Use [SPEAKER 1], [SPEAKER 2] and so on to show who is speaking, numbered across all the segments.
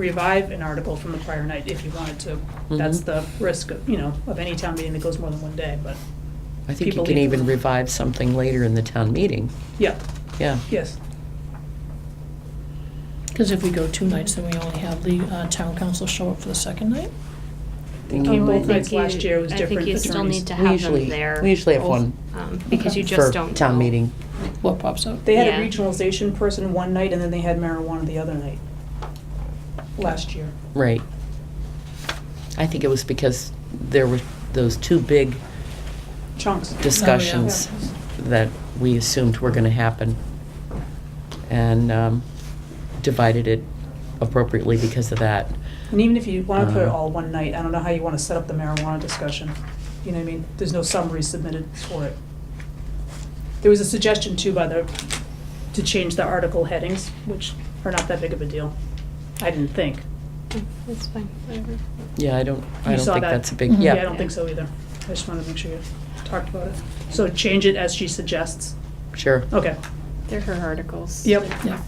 [SPEAKER 1] revive an article from the prior night if you wanted to. That's
[SPEAKER 2] Mhm.
[SPEAKER 1] the risk, of you know, of any town meeting that goes more than one day, but,
[SPEAKER 2] I think you
[SPEAKER 1] people
[SPEAKER 2] can
[SPEAKER 1] leave.
[SPEAKER 2] even revive something later in the town meeting.
[SPEAKER 1] yeah,
[SPEAKER 2] Yeah,
[SPEAKER 1] yes.
[SPEAKER 3] Because if we go two nights, then we only have the uh, town council show up for the second night.
[SPEAKER 2] They
[SPEAKER 1] came
[SPEAKER 4] Oh, I
[SPEAKER 1] both
[SPEAKER 4] think
[SPEAKER 1] nights last
[SPEAKER 4] you-
[SPEAKER 1] year, it was
[SPEAKER 4] I
[SPEAKER 1] different
[SPEAKER 4] think you still
[SPEAKER 1] attorneys.
[SPEAKER 4] need to
[SPEAKER 2] We
[SPEAKER 4] have
[SPEAKER 2] usually-
[SPEAKER 4] them there.
[SPEAKER 2] we usually have
[SPEAKER 4] both,
[SPEAKER 2] one
[SPEAKER 4] um, Because you
[SPEAKER 2] for
[SPEAKER 4] just don't know.
[SPEAKER 2] town meeting.
[SPEAKER 3] What pops up?
[SPEAKER 1] They had a
[SPEAKER 4] Yeah.
[SPEAKER 1] regionalization person one night and then they had marijuana the other night, last year.
[SPEAKER 2] Right. I think it was because there were those two big
[SPEAKER 1] Chunks.
[SPEAKER 2] discussions that we assumed were going to happen and um, divided it appropriately because of that.
[SPEAKER 1] And even if you want to put it
[SPEAKER 2] Uh-huh.
[SPEAKER 1] all one night, I don't know how you want to set up the marijuana discussion. You know what I mean? There's no summary submitted for it. There was a suggestion too by the, to change the article headings, which are not that big of a deal, I didn't think.
[SPEAKER 4] Oh, That's fine, whatever.
[SPEAKER 2] Yeah, I don't, I
[SPEAKER 1] You
[SPEAKER 2] don't
[SPEAKER 1] saw
[SPEAKER 2] think
[SPEAKER 1] that? Mm-hmm.
[SPEAKER 2] that's a big,
[SPEAKER 3] Mhm.
[SPEAKER 2] yeah.
[SPEAKER 1] Yeah, I don't think so either. I just wanted to make sure you talked about it. So change it as she suggests.
[SPEAKER 2] Sure.
[SPEAKER 1] Okay.
[SPEAKER 4] They're her articles.
[SPEAKER 1] Yep.
[SPEAKER 3] Yeah.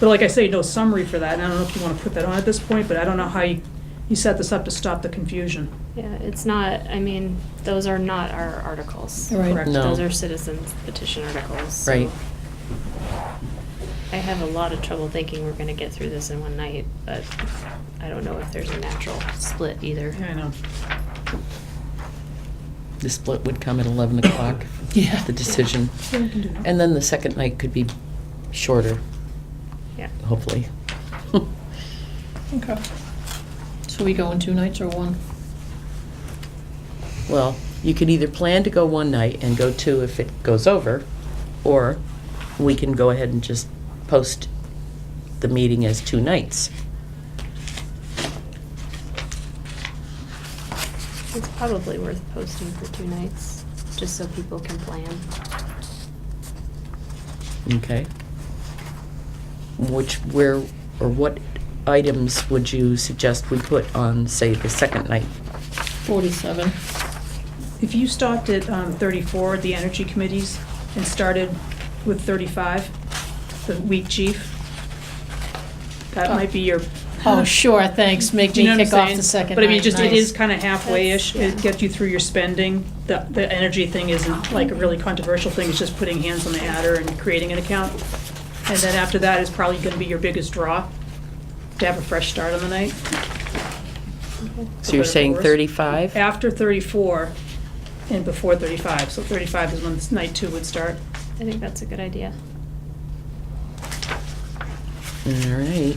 [SPEAKER 1] But like I say, no summary for that, and I don't know if you want to put that on at this point, but I don't know how you, you set this up to stop the confusion.
[SPEAKER 4] Yeah, it's not, I mean, those are not our articles.
[SPEAKER 3] Right.
[SPEAKER 1] Correct.
[SPEAKER 2] No.
[SPEAKER 4] Those are citizens petition articles. so
[SPEAKER 2] Right.
[SPEAKER 4] I have a lot of trouble thinking we're gonna get through this in one night, but I don't know if there's a natural split either.
[SPEAKER 1] Yeah, I know.
[SPEAKER 2] The split would come at 11 o'clock,
[SPEAKER 3] Yeah.
[SPEAKER 2] the decision. And then the second night could be shorter,
[SPEAKER 4] Yeah.
[SPEAKER 2] hopefully.
[SPEAKER 3] Okay. So we go in two nights or one?
[SPEAKER 2] Well, you could either plan to go one night and go two if it goes over, or we can go ahead and just post the meeting as two nights.
[SPEAKER 4] It's probably worth posting for two nights, just so people can plan.
[SPEAKER 2] Okay. Which, where, or what items would you suggest we put on, say, the second night?
[SPEAKER 3] Forty-seven.
[SPEAKER 1] If you stopped at um, 34, the energy committees, and started with 35, the week chief, that might be your.
[SPEAKER 3] Oh, sure, thanks. Make
[SPEAKER 1] Do you
[SPEAKER 3] me
[SPEAKER 1] know what I'm
[SPEAKER 3] kick off
[SPEAKER 1] saying?
[SPEAKER 3] the second night.
[SPEAKER 1] But I mean, just, it
[SPEAKER 3] Nice.
[SPEAKER 1] is kind of halfway-ish, it
[SPEAKER 4] That's-
[SPEAKER 1] gets you through your spending. The, the energy thing isn't like a really controversial thing, it's just putting hands on the adder and creating an account. And then after that is probably going to be your biggest draw, to have a fresh start on the night.
[SPEAKER 2] So you're
[SPEAKER 1] For better or
[SPEAKER 2] saying
[SPEAKER 1] worse.
[SPEAKER 2] 35?
[SPEAKER 1] After 34 and before 35, so 35 is when this night two would start.
[SPEAKER 4] I think that's a good idea.
[SPEAKER 2] All right.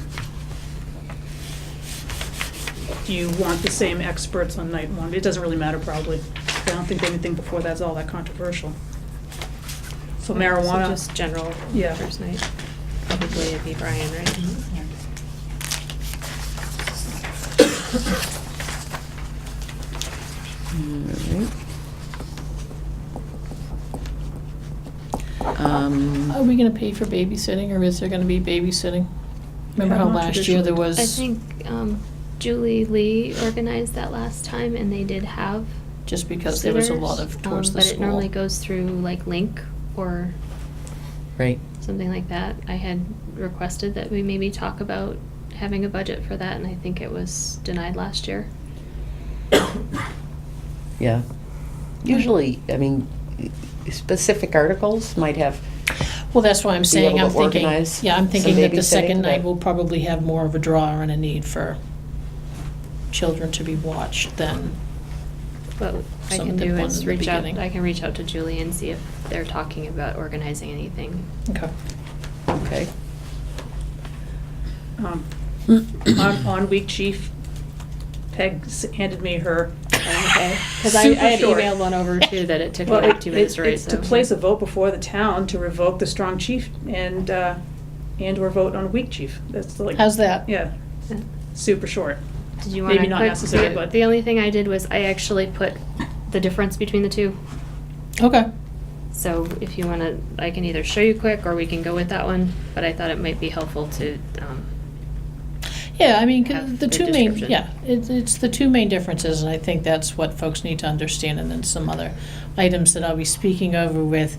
[SPEAKER 1] Do you want the same experts on night one? It doesn't really matter probably. I don't think anything before that's all that controversial. So marijuana.
[SPEAKER 4] just general
[SPEAKER 1] Yeah.
[SPEAKER 4] first night. Probably it'd be Brian, right?
[SPEAKER 3] Mm-hmm.
[SPEAKER 2] Um,
[SPEAKER 3] Are we gonna pay for babysitting or is there gonna be babysitting? Remember how
[SPEAKER 1] Yeah,
[SPEAKER 3] last year there
[SPEAKER 1] traditionally.
[SPEAKER 3] was?
[SPEAKER 4] I think um, Julie Lee organized that last time, and they did have
[SPEAKER 3] Just because there was a lot
[SPEAKER 4] sitters,
[SPEAKER 3] of towards
[SPEAKER 4] um,
[SPEAKER 3] the
[SPEAKER 4] but
[SPEAKER 3] school.
[SPEAKER 4] it normally goes through like Link or
[SPEAKER 2] Right.
[SPEAKER 4] something like that. I had requested that we maybe talk about having a budget for that, and I think it was denied last year.
[SPEAKER 2] Yeah. Usually, I mean, specific articles might have,
[SPEAKER 3] Well, that's why I'm saying,
[SPEAKER 2] able
[SPEAKER 3] I'm
[SPEAKER 2] to
[SPEAKER 3] thinking,
[SPEAKER 2] organize
[SPEAKER 3] yeah, I'm
[SPEAKER 2] some
[SPEAKER 3] thinking that the
[SPEAKER 2] babysitting,
[SPEAKER 3] second night
[SPEAKER 2] but-
[SPEAKER 3] will probably have more of a draw and a need for children to be watched than,
[SPEAKER 4] What I
[SPEAKER 3] Some
[SPEAKER 4] can
[SPEAKER 3] of the
[SPEAKER 4] do
[SPEAKER 3] ones
[SPEAKER 4] is
[SPEAKER 3] in the
[SPEAKER 4] reach out.
[SPEAKER 3] beginning.
[SPEAKER 4] I can reach out to Julie and see if they're talking about organizing anything.
[SPEAKER 3] okay.
[SPEAKER 2] okay.
[SPEAKER 1] Um, On, on week chief, Peg s- handed me her.
[SPEAKER 4] Okay, because I, I had
[SPEAKER 1] Super short.
[SPEAKER 4] emailed one over too that it took me
[SPEAKER 1] Well,
[SPEAKER 4] like
[SPEAKER 1] it-
[SPEAKER 4] two minutes
[SPEAKER 1] it-
[SPEAKER 4] to write.
[SPEAKER 1] it's to
[SPEAKER 4] so-
[SPEAKER 1] place a vote before the town to revoke the strong chief and, uh, and/or vote on weak chief. That's like.
[SPEAKER 3] How's that?
[SPEAKER 1] Yeah,
[SPEAKER 4] Yeah.
[SPEAKER 1] super short.
[SPEAKER 4] Did you want
[SPEAKER 1] Maybe
[SPEAKER 4] to?
[SPEAKER 1] not necessary, but-
[SPEAKER 4] The only thing I did was I actually put the difference between the two.
[SPEAKER 3] Okay,
[SPEAKER 4] So if you want to, I can either show you quick or we can go with that one, but I thought it might be helpful to, um,
[SPEAKER 3] yeah, I mean, 'cause
[SPEAKER 4] Have
[SPEAKER 3] the
[SPEAKER 4] the
[SPEAKER 3] two main,
[SPEAKER 4] description.
[SPEAKER 3] yeah, it's, it's the two main differences, and I think that's what folks need to understand, and then some other items that I'll be speaking over with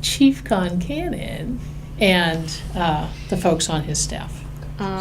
[SPEAKER 3] Chief Con Cannon and, uh, the folks on his staff.
[SPEAKER 4] um,